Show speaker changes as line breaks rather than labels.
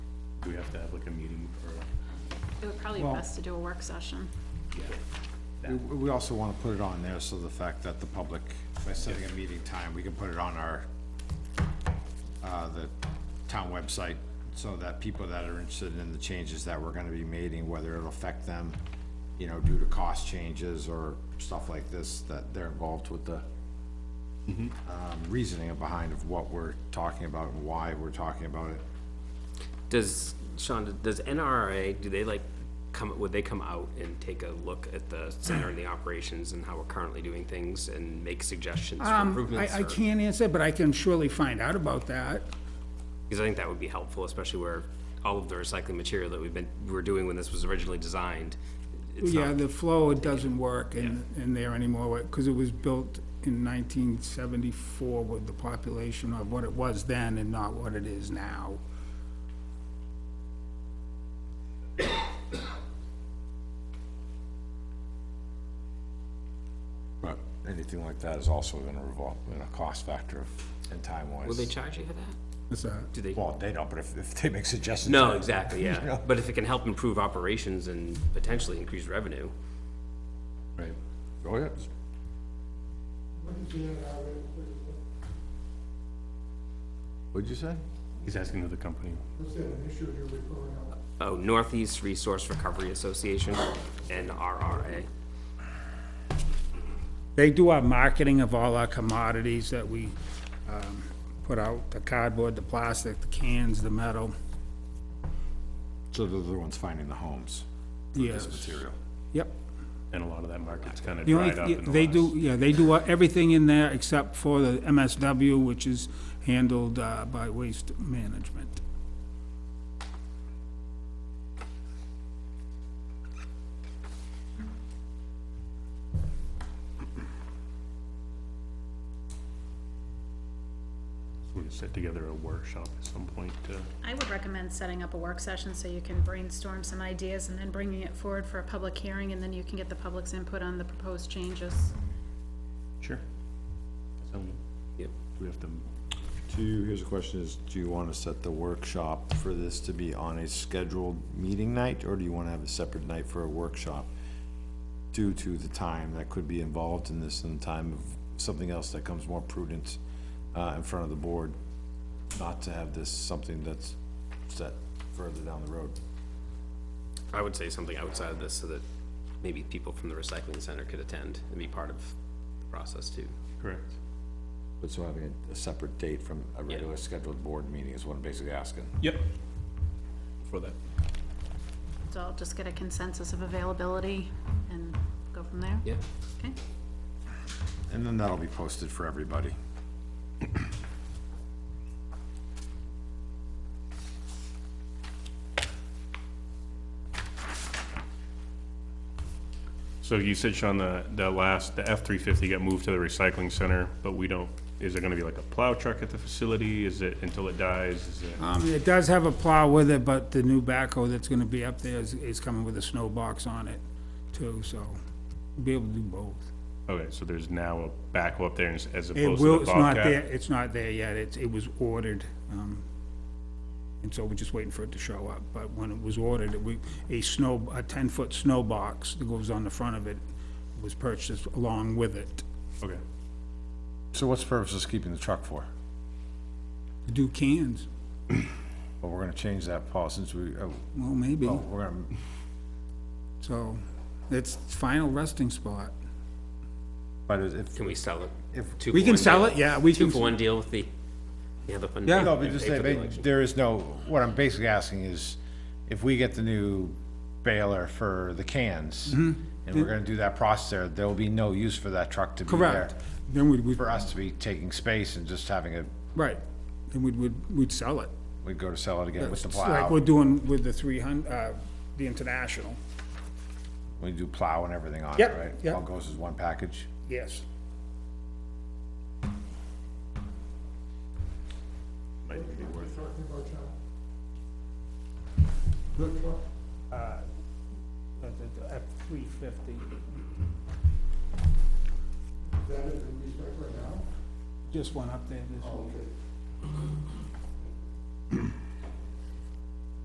Do we have to have like a meeting or,
It would probably be
Well-
best to do a work session.
yeah?
We,
that-
we also wanna put it on there, so the fact that the public, by setting a meeting time, we can put it on our, uh, the town website, so that people that are interested in the changes that we're gonna be making, whether it'll affect them, you know, due to cost changes or stuff like this, that they're involved with the
Mm-hmm.
um, reasoning behind of what we're talking about and why we're talking about it.
Does, Sean, does NRA, do they like come, would they come out and take a look at the center and the operations and how we're currently doing things and make suggestions for
Um,
improvements?
I, I
or-
can't answer, but I can surely find out about that.
Because I think that would be helpful, especially where all of the recycling material that we've been, we were doing when this was originally designed. It's
Yeah,
not,
the flow doesn't work in, in there anymore, because it was built in nineteen seventy-four with the population of what it was then and not what it is now.
But anything like that is also gonna revolve, in a cost factor of- and time wise.
will they charge you for that?
What's that?
Do they?
Well, they don't, but if, if they make suggestions.
No, exactly, yeah. But if it can help improve operations and potentially increase revenue,
Right,
Oh, yeah. What'd you say?
he's asking of the company.
oh, Northeast Resource Recovery Association, NRRA.
They do our marketing of all our commodities that we, um, put out, the cardboard, the plastic, the cans, the metal.
So they're the ones finding the homes for
Yes,
this material.
yep.
And a lot of that market's kind of
The only,
dried up
yeah,
in the
they do,
last-
yeah, they do uh, everything in there except for the MSW, which is handled uh, by Waste Management.
We're gonna set together a workshop at some point to,
I would recommend setting up a work session so you can brainstorm some ideas and then bringing it forward for a public hearing, and then you can get the public's input on the proposed changes.
sure. So, do
Yep.
we have to,
Do you, here's a question is, do you wanna set the workshop for this to be on a scheduled meeting night, or do you wanna have a separate night for a workshop? Due to the time that could be involved in this and the time of something else that comes more prudent, uh, in front of the board, not to have this something that's set further down the road.
I would say something outside of this so that maybe people from the recycling center could attend and be part of the process too.
correct?
But so having a separate date from a regular scheduled board meeting is what I'm basically asking.
Yep. For that.
So I'll just get a consensus of availability and go from there.
Yeah.
Okay,
And then that'll be posted for everybody.
So you said, Sean, the, the last, the F-350 got moved to the recycling center, but we don't, is there gonna be like a plow truck at the facility? Is it until it dies? Is it,
Um, It does have a plow with it, but the new backhoe that's gonna be up there is, is coming with a snow box on it too, so we'll be able to do both.
okay, so there's now a backhoe up there as as
It
opposed to
will,
the
it's not there,
Bobcat?
it's not there yet, it's, it was ordered, um, and so we're just waiting for it to show up, but when it was ordered, we, a snow, a ten-foot snow box that goes on the front of it was purchased along with it.
Okay,
So what's the purpose of keeping the truck for?
To do cans,
Well, we're gonna change that policy since we, oh,
well, maybe,
oh, we're gonna,
so, it's final resting spot.
but if,
Can we sell it? Two
We
for
can
one
sell
deal.
it, yeah, we
Two
can,
for one deal with the, the other one.
Yeah.
no,
We
but just
pay
say,
for the
ma-
election.
there is no, what I'm basically asking is, if we get the new baler for the cans, and we're gonna do that process there, there will be no use for that truck to be there.
correct, then we, we,
For us to be taking space and just having a,
right, then we'd, we'd, we'd sell it.
we'd go to sell it again with the
It's Like we're
plow,
doing with the three hun, uh, the international,
we do plow and everything on it,
Yep,
right?
yep.
All goes as one package.
yes.
Might be worth it.
Uh, F three fifty. Just one up there this week.